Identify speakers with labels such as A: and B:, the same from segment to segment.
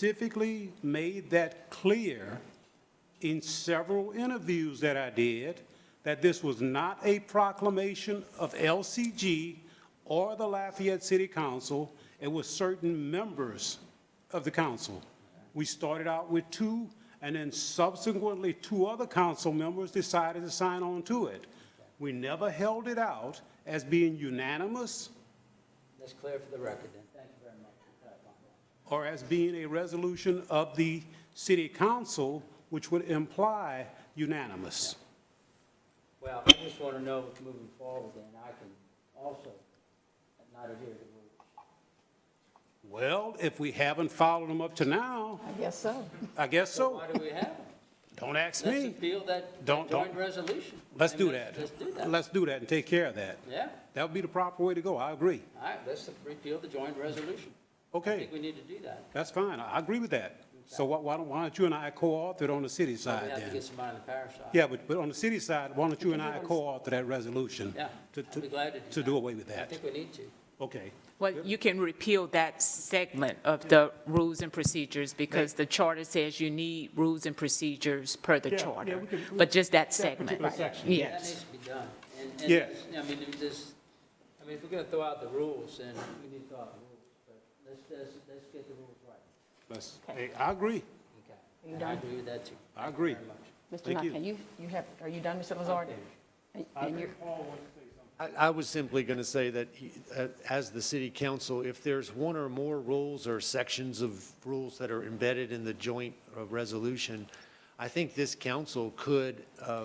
A: specifically made that clear in several interviews that I did, that this was not a proclamation of LCG or the Lafayette City Council. It was certain members of the council. We started out with two, and then subsequently, two other council members decided to sign on to it. We never held it out as being unanimous
B: That's clear for the record then. Thank you very much for clarifying.
A: or as being a resolution of the city council, which would imply unanimous.
B: Well, I just want to know moving forward, then I can also not adhere to rules.
A: Well, if we haven't followed them up to now,
C: I guess so.
A: I guess
B: So
A: so.
B: why do we have them?
A: Don't ask
B: Let's
A: me.
B: appeal that
A: Don't- don't-
B: joint resolution.
A: Let's
B: I
A: do
B: mean,
A: that.
B: Let's do that.
A: Let's do that and take care of that.
B: Yeah,
A: That would be the proper way to go. I agree.
B: all right, let's repeal the joint resolution. I
A: Okay,
B: think we need to do that.
A: that's fine. I I agree with that. So why- why don't, why don't you and I co-author it on the city
B: We
A: side
B: have to
A: then?
B: get somebody on the parish side.
A: Yeah, but, but on the city side, why don't you and I co-author that resolution?
B: Yeah,
A: to-
B: I'd be glad to do
A: To
B: that.
A: do away with
B: I
A: that.
B: think we need to.
A: Okay.
C: Well, you can repeal that segment of the rules and procedures because the charter says you need rules and procedures per the
A: Yeah, yeah,
C: charter.
A: we could- we-
C: But just that
A: that
C: segment.
A: particular section,
B: That
C: Yes.
B: needs to be done. And, and,
A: Yes.
B: it's- I mean, it just, I mean, if we're going to throw out the rules, then we need to throw out the rules. But let's, let's, let's get the rules right.
A: Let's- hey, I agree.
B: Okay.
D: you
B: And I
D: done?
B: agree with that too.
A: I agree.
B: Very much.
D: Mr.
A: Thank you.
D: Knight, can you, you have, are you done, Mr. Lazard? And- And you're,
E: I, I was simply going to say that, he- uh, as the city council, if there's one or more rules or sections of rules that are embedded in the joint uh, resolution, I think this council could uh,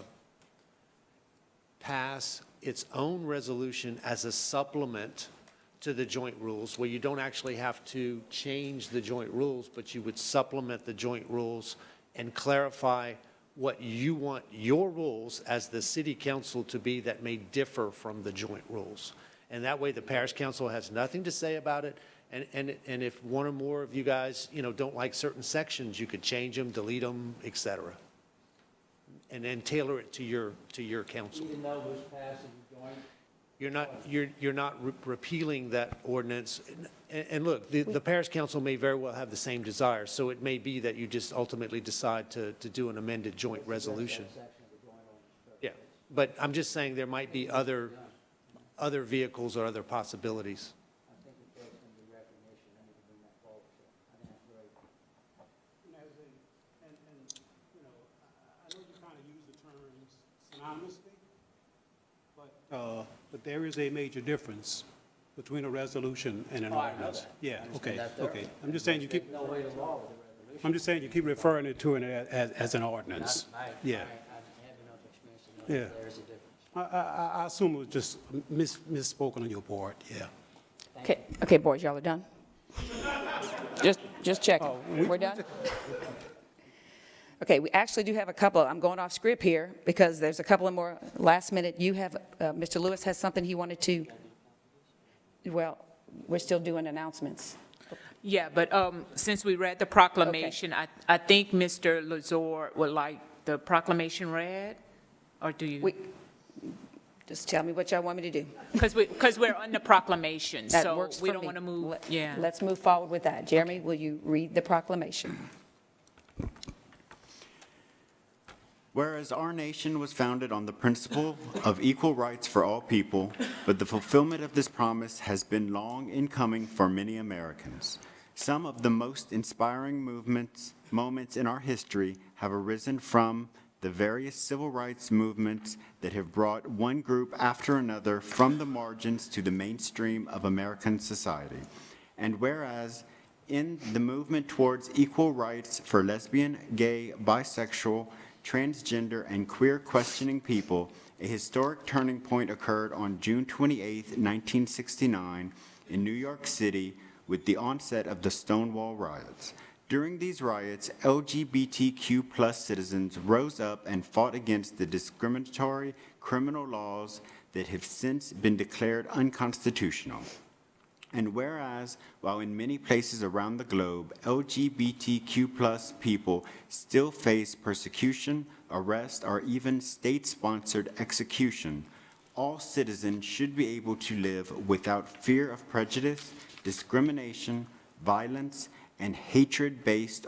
E: pass its own resolution as a supplement to the joint rules, where you don't actually have to change the joint rules, but you would supplement the joint rules and clarify what you want your rules as the city council to be that may differ from the joint rules. And that way, the parish council has nothing to say about it. And, and, and if one or more of you guys, you know, don't like certain sections, you could change them, delete them, et cetera. And then tailor it to your, to your council.
B: Even though it was passed and joint,
E: You're not, you're, you're not re- repealing that ordinance. And, and look, the, the parish council may very well have the same desire, so it may be that you just ultimately decide to, to do an amended joint resolution. Yeah, but I'm just saying there might be other, other vehicles or other possibilities.
B: I think it takes some recognition, I need to bring that forward. so I think that's great.
A: And as a, and, and, you know, I, I know you kind of use the terms synonymously, but. Uh, but there is a major difference between a resolution and an
B: Oh, I know
A: ordinance.
B: that. I
A: Yeah, okay,
B: understand that
A: okay.
B: thoroughly.
A: I'm just saying you keep,
B: No way to law with the resolution.
A: I'm just saying you keep referring it to it as, as an ordinance.
B: I- I-
A: Yeah.
B: I I have enough experience to know
A: Yeah.
B: that there is a difference.
A: I, I, I- I assume it was just mis, misspoken on your part, yeah.
D: okay, okay, boys, y'all are done? Just, just checking. We're done? Okay, we actually do have a couple, I'm going off script here, because there's a couple of more last minute. You have, uh, Mr. Lewis has something he wanted to, well, we're still doing announcements.
C: Yeah, but um, since we read the proclamation, I, I think Mr. Lazar would like the proclamation read, or do you?
D: We, just tell me what y'all want me to do.
C: Because we, because we're on the proclamation,
D: That
C: so
D: works for me.
C: we don't want to move,
D: Let-
C: yeah.
D: Let's move forward with that. Jeremy, will you read the proclamation?
F: Whereas our nation was founded on the principle of equal rights for all people, but the fulfillment of this promise has been long in coming for many Americans. Some of the most inspiring movements, moments in our history have arisen from the various civil rights movements that have brought one group after another from the margins to the mainstream of American society. And whereas, in the movement towards equal rights for lesbian, gay, bisexual, transgender, and queer questioning people, a historic turning point occurred on June 28, 1969, in New York City with the onset of the Stonewall riots. During these riots, LGBTQ+ citizens rose up and fought against the discriminatory criminal laws that have since been declared unconstitutional. And whereas, while in many places around the globe, LGBTQ people still face persecution, arrest, or even state-sponsored execution, all citizens should be able to live without fear of prejudice, discrimination, violence, and hatred based